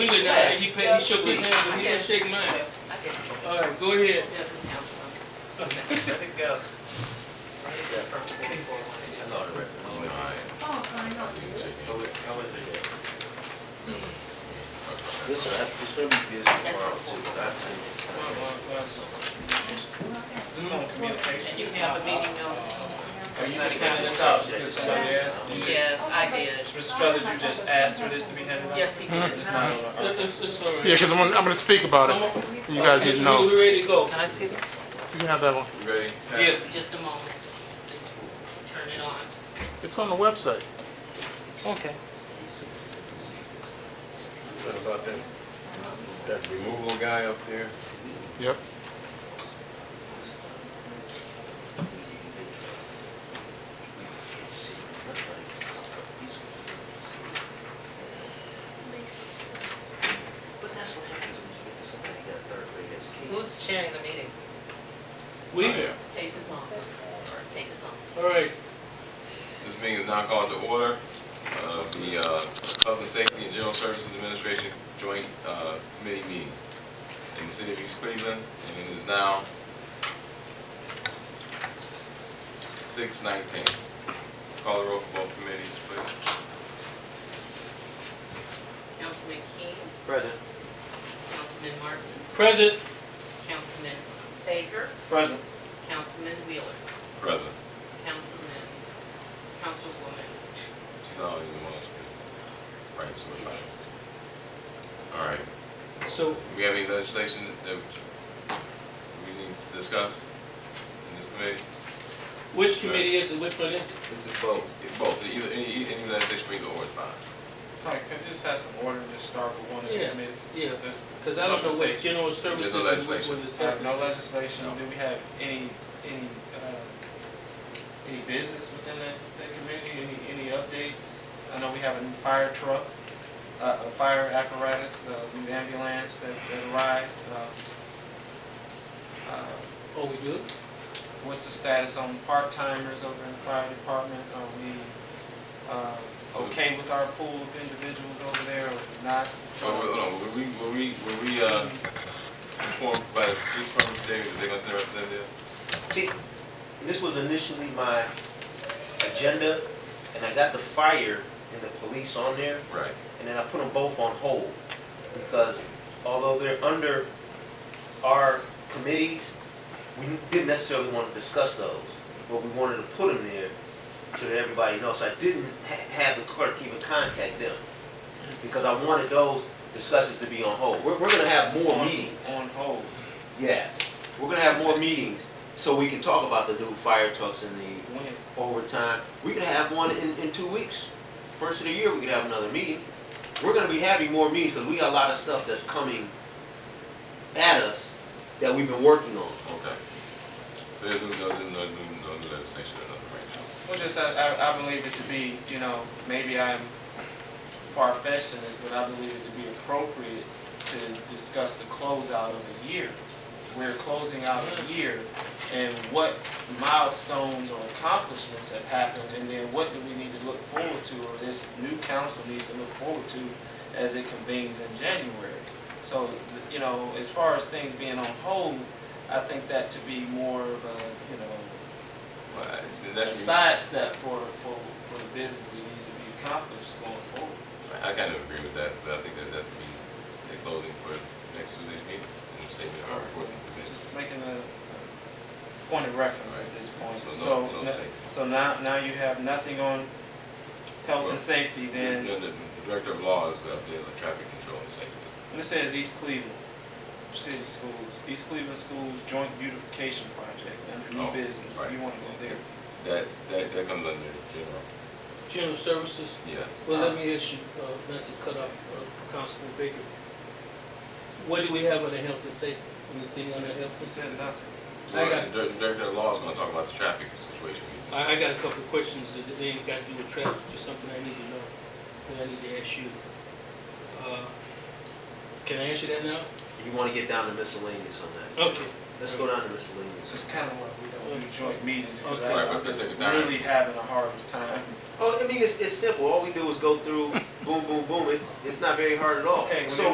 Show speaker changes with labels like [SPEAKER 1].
[SPEAKER 1] good now, he, pa- he shook his hand, but he didn't shake mine. All right, go ahead.
[SPEAKER 2] Oh, I know.
[SPEAKER 3] Listen, I- it's gonna be busy tomorrow too, but I
[SPEAKER 4] Just on communication.
[SPEAKER 5] And you have a meeting notice?
[SPEAKER 4] Are you just handing this out because somebody asked? You just-
[SPEAKER 5] Yes, I did.
[SPEAKER 4] Mr. Struthers, you just asked for this to be handed out?
[SPEAKER 5] Yes, he did.
[SPEAKER 4] It's not on our-
[SPEAKER 1] It's, it's all right.
[SPEAKER 6] Yeah, because I'm gonna, I'm gonna speak about it. You guys need
[SPEAKER 1] Okay,
[SPEAKER 6] to
[SPEAKER 1] so
[SPEAKER 6] know. You
[SPEAKER 1] We ready to go.
[SPEAKER 5] Can I see it?
[SPEAKER 6] can have that one.
[SPEAKER 3] Ready?
[SPEAKER 4] Yeah,
[SPEAKER 5] Just a moment. Turn it on.
[SPEAKER 6] It's on the website.
[SPEAKER 5] Okay.
[SPEAKER 7] What about that, that removal guy up there?
[SPEAKER 6] Yep.
[SPEAKER 3] But that's what happens when you get to somebody who got a third grade education.
[SPEAKER 5] Who's chairing the meeting?
[SPEAKER 1] We,
[SPEAKER 5] Take us on. Take us on.
[SPEAKER 1] all right,
[SPEAKER 8] This meeting is now called to order. Uh, The uh, Public Safety and General Services Administration Joint uh, Committee meeting in the city of East Cleveland, and it is now 6:19. Call the roll for both committees, please.
[SPEAKER 5] Councilman King,
[SPEAKER 3] President,
[SPEAKER 5] Councilman Martin,
[SPEAKER 1] present.
[SPEAKER 5] Councilman Baker. Present. Councilman Wheeler,
[SPEAKER 8] President.
[SPEAKER 5] Councilman, Councilwoman,
[SPEAKER 8] She's not even one of Oh, us. Right,
[SPEAKER 5] she's
[SPEAKER 8] so,
[SPEAKER 5] absent.
[SPEAKER 8] all right.
[SPEAKER 1] So,
[SPEAKER 8] We have any legislation that we need to discuss in this committee?
[SPEAKER 1] which committee is it, which one is it?
[SPEAKER 3] this is both.
[SPEAKER 8] If Both, either, any, any legislation for either or is fine.
[SPEAKER 4] Mike, can I just have some order and just start with one of the
[SPEAKER 1] Yeah,
[SPEAKER 4] committees?
[SPEAKER 1] yeah.
[SPEAKER 4] This-
[SPEAKER 1] Because I don't know what
[SPEAKER 4] Legislation.
[SPEAKER 1] general services
[SPEAKER 8] no
[SPEAKER 1] is,
[SPEAKER 8] legislation.
[SPEAKER 1] what is
[SPEAKER 4] I have no
[SPEAKER 1] happening.
[SPEAKER 4] legislation, do we have any, any, uh, any business within that, that committee, any, any updates? I know we have a new fire truck, uh, a fire apparatus, a new ambulance that, that arrived, um, uh,
[SPEAKER 1] Oh, we do?
[SPEAKER 4] What's the status on part-timers over in the fire department? Are we uh, okay with our pool of individuals over there or not?
[SPEAKER 8] Oh, wait, hold on, were we, were we, were we, uh, informed by the police department today that they're gonna send a representative?
[SPEAKER 3] See, this was initially my agenda, and I got the fire and the police on there,
[SPEAKER 8] Right.
[SPEAKER 3] and then I put them both on hold, because although they're under our committees, we didn't necessarily want to discuss those, but we wanted to put them there so that everybody knows. So I didn't ha- have the clerk even contact them, because I wanted those discussions to be on hold. We're, we're gonna have more
[SPEAKER 4] On-
[SPEAKER 3] meetings.
[SPEAKER 4] On hold.
[SPEAKER 3] Yeah, we're gonna have more meetings, so we can talk about the new fire trucks and the
[SPEAKER 4] When?
[SPEAKER 3] overtime. We could have one in, in two weeks. First of the year, we could have another meeting. We're gonna be having more meetings, because we got a lot of stuff that's coming at us that we've been working on.
[SPEAKER 8] Okay. So there's no, no, there's no, no, no new legislation or nothing right now.
[SPEAKER 4] Well, just, I, I, I believe it to be, you know, maybe I'm far-fetched in this, but I believe it to be appropriate to discuss the closeout of the year. We're closing out a year, and what milestones or accomplishments have happened, and then what do we need to look forward to, or this new council needs to look forward to as it convenes in January. So, you know, as far as things being on hold, I think that to be more of a, you know,
[SPEAKER 8] Well, I- then
[SPEAKER 4] a
[SPEAKER 8] that should be-
[SPEAKER 4] sidestep for, for, for the business that needs to be accomplished going forward.
[SPEAKER 8] I, I kind of agree with that, but I think that that could be a closing for next Tuesday's meeting in the statement of our reporting committee.
[SPEAKER 4] Just making a a point of reference at this point.
[SPEAKER 8] So
[SPEAKER 4] So,
[SPEAKER 8] no- no
[SPEAKER 4] no-
[SPEAKER 8] take.
[SPEAKER 4] so now, now you have nothing on health and safety
[SPEAKER 8] And
[SPEAKER 4] then,
[SPEAKER 8] then the director of law is up there, the traffic control and safety.
[SPEAKER 4] and it says East Cleveland City Schools, East Cleveland Schools Joint Beautification Project, under
[SPEAKER 8] Oh,
[SPEAKER 4] new business,
[SPEAKER 8] right.
[SPEAKER 4] you wanna go there.
[SPEAKER 8] That, that, that comes under general,
[SPEAKER 1] General services?
[SPEAKER 8] yes.
[SPEAKER 1] Well, let me ask you, uh, not to cut off uh, Constable Baker. What do we have on the health and safety? Anything on the health and safety?
[SPEAKER 4] We said nothing.
[SPEAKER 1] I got-
[SPEAKER 8] The dir- director of law is gonna talk about the traffic situation. we just-
[SPEAKER 1] I, I got a couple of questions that this ain't got to do with traffic, just something I need to know, that I need to ask you. Uh, Can I answer that now?
[SPEAKER 3] You wanna get down to miscellaneous on that.
[SPEAKER 1] Okay.
[SPEAKER 3] Let's go down to
[SPEAKER 4] That's
[SPEAKER 3] miscellaneous.
[SPEAKER 4] kinda why we don't do joint meetings, because
[SPEAKER 1] Okay.
[SPEAKER 8] Right, but
[SPEAKER 4] I'm
[SPEAKER 8] if it's
[SPEAKER 4] just
[SPEAKER 8] a time-
[SPEAKER 4] really having a hardest time.
[SPEAKER 3] Oh, I mean, it's, it's simple. All we do is go through, boom, boom, boom. It's, it's not very hard at all.
[SPEAKER 4] Okay, well,
[SPEAKER 3] So